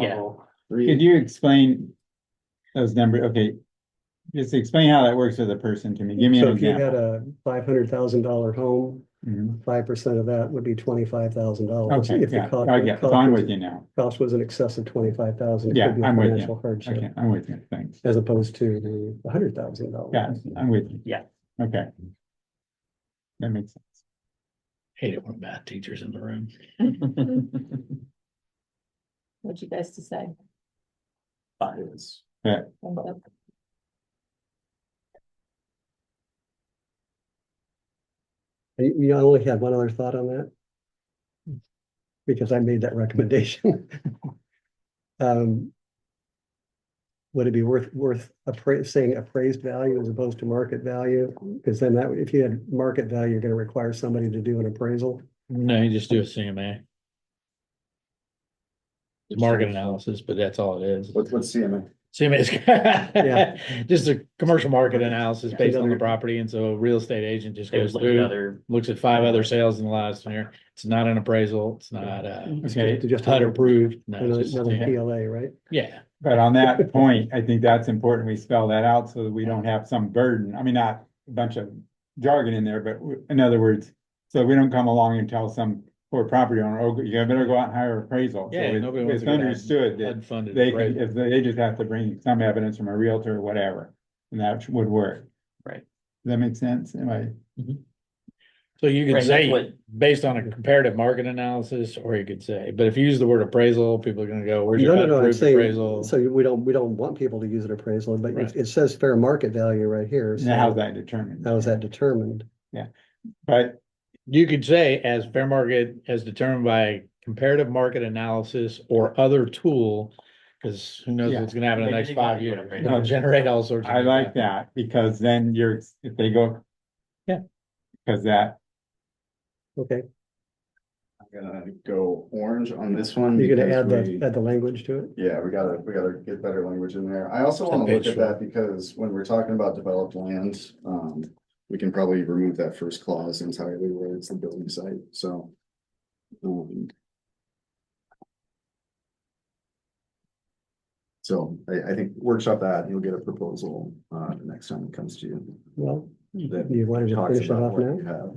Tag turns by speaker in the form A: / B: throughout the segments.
A: Yeah.
B: I'll
C: Could
B: read it.
C: you explain those numbers? Okay. Just explain how that works with a person to me. Give me
B: So
C: an
B: if you
C: example.
B: had a five hundred thousand dollar home,
C: Mhm.
B: five percent of that would be twenty-five thousand dollars.
C: Okay, yeah, I get, I'm with you now.
B: Cost was in excess of twenty-five thousand.
C: Yeah, I'm with you.
B: Financial hardship.
C: Okay, I'm with you. Thanks.
B: as opposed to the hundred thousand dollars.
C: Yeah, I'm with you.
A: Yeah.
C: Okay. That makes sense.
D: Hate it when bad teachers in the room.
E: What'd you guys decide?
A: Fines.
E: Thumbs up?
B: You, you only had one other thought on that? Because I made that recommendation. Um. Would it be worth, worth appraise, saying appraised value as opposed to market value? Because then that, if you had market value, you're gonna require somebody to do an appraisal.
D: No, you just do a CMA, It's market analysis, but that's all it is.
F: What's, what's CMA?
D: CMA
B: Yeah.
D: is just a commercial market analysis based on the
B: Another-
D: property. And so a real estate agent just goes
A: There's like
D: through,
A: other,
D: looks at five other sales in the last year. It's not an appraisal. It's not a
C: Okay,
B: To just
D: HUD approved. No,
B: Another
D: it's just-
B: another
D: yeah.
B: PLA, right?
D: Yeah,
C: but on that point, I think that's important. We spell that out so that we don't have some burden. I mean, not a bunch of jargon in there, but w- in other words, so we don't come along and tell some poor property owner, oh, you better go out and hire appraisal. So
D: Yeah,
C: it-
D: nobody
C: It's
D: wants to go down.
C: understood that
D: HUD-funded
C: They can,
D: appraisal.
C: if they they just have to bring some evidence from a realtor or whatever, and that would work.
A: Right.
C: Does that make sense? Am I,
D: So you could
A: Right, that's
D: say,
A: what-
D: based on a comparative market analysis, or you could say, but if you use the word appraisal, people are gonna go, where's
B: No,
D: your
B: no, no, I'm
D: HUD-approved
B: saying,
D: appraisal?
B: so we don't, we don't want people to use an appraisal, but it,
D: Right.
B: it says fair market value right here. so
C: now how's that determined?
B: How is that determined?
C: But,
D: You could say as fair market as determined by comparative market analysis or other tool. Cause who knows
C: Yeah.
D: what's gonna happen in the
A: Maybe
D: next
A: they
D: five
A: got you
D: years,
A: whatever.
D: it'll generate all sorts. of
C: I
D: new
C: like
D: stuff.
C: that, because then you're, if they go.
D: Yeah.
C: Cause that,
B: Okay,
F: I'm gonna go orange on this one.
B: you're gonna
F: Hmm, because
B: add the,
F: we-
B: add the language to it?
F: Yeah, we gotta, we gotta get better language in there. I also
D: It's
F: wanna look at
D: habitual.
F: that because when we're talking about developed land, um, we can probably remove that first clause entirely where it's the building site, so. um, So I, I think workshop that, you'll get a proposal, uh, the next time it comes to you.
B: Well,
F: that
B: you wanted to
F: talks
B: finish it
F: about
B: off
F: what
B: now?
F: you have.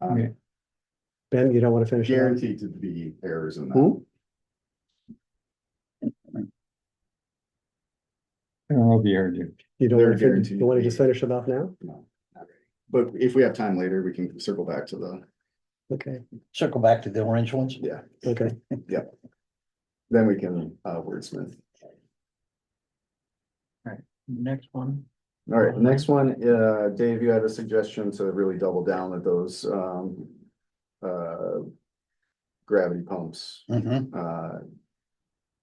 F: Um,
C: Okay.
B: Ben, you don't want to finish? it off?
F: Guaranteed to be errors in that.
B: Hmm?
C: I don't know if you heard you.
B: You don't
F: They're
B: want to, finish-
F: guaranteed
B: you want to
F: to
B: just
F: be-
B: finish it off now?
F: But if we have time later, we can circle back to the,
B: Okay,
G: circle back to the orange ones.
F: yeah,
B: okay.
F: then we can uh wordsmith.
A: next one,
F: All right, the next one, uh, Dave, you had a suggestion to really double down at those um. Uh. Gravity pumps,
G: Mhm.
F: uh.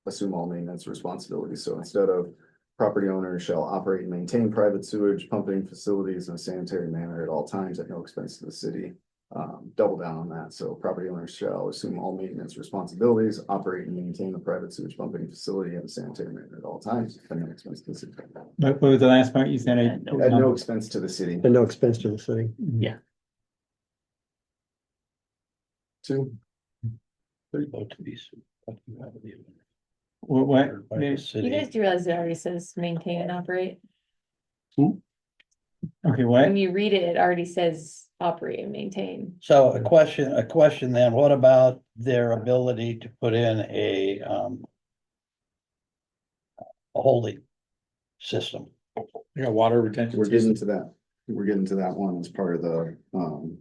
F: Assume all maintenance responsibilities, so instead of property owners shall operate and maintain private sewage pumping facilities in a sanitary manner at all times at no expense to the city. Um, double down on that, so property owners shall assume all maintenance responsibilities, operate and maintain the private sewage pumping facility in a sanitary manner at all times, at no expense to the city.
C: But what was the last part you said? I-
A: At no-
F: At no expense to the city.
B: And no expense to the city.
F: Two.
G: Both of these. both you have the-
C: What, what?
G: by the
E: You
G: city.
E: guys do realize it already says maintain and operate?
C: Okay,
E: When
C: what?
E: you read it, it already says operate and maintain.
G: So a question, a question then, what about their ability to put in a, um, a holding system?
D: You got water retention.
F: We're
D: system.
F: getting to that. We're getting to that one as part of the um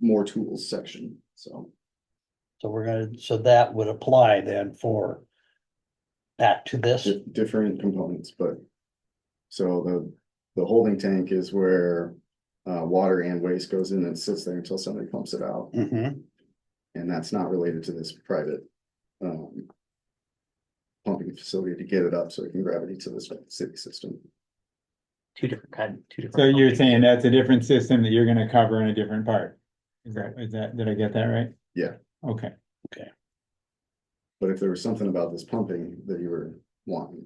F: more tools section, so.
G: So we're gonna, so that would apply then for that to this?
F: di- Different components, but. So the, the holding tank is where uh water and waste goes in and sits there until somebody pumps it out,
G: Mhm.
F: and that's not related to this private. Um. Pumping facility to get it up so it can gravity to this city system.
A: two different kind, two different.
C: So you're
A: companies.
C: saying that's a different system that you're gonna cover in a different part? Is that, is that, did I get that right?
F: Yeah.
C: Okay,
F: But if there was something about this pumping that you were wanting,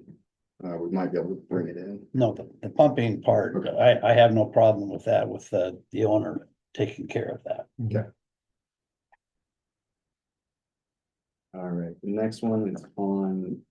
F: uh, we might be able to bring it in.
G: No, the, the pumping part, I, I have no problem with that, with the, the owner taking care of that.
F: All right, the next one is on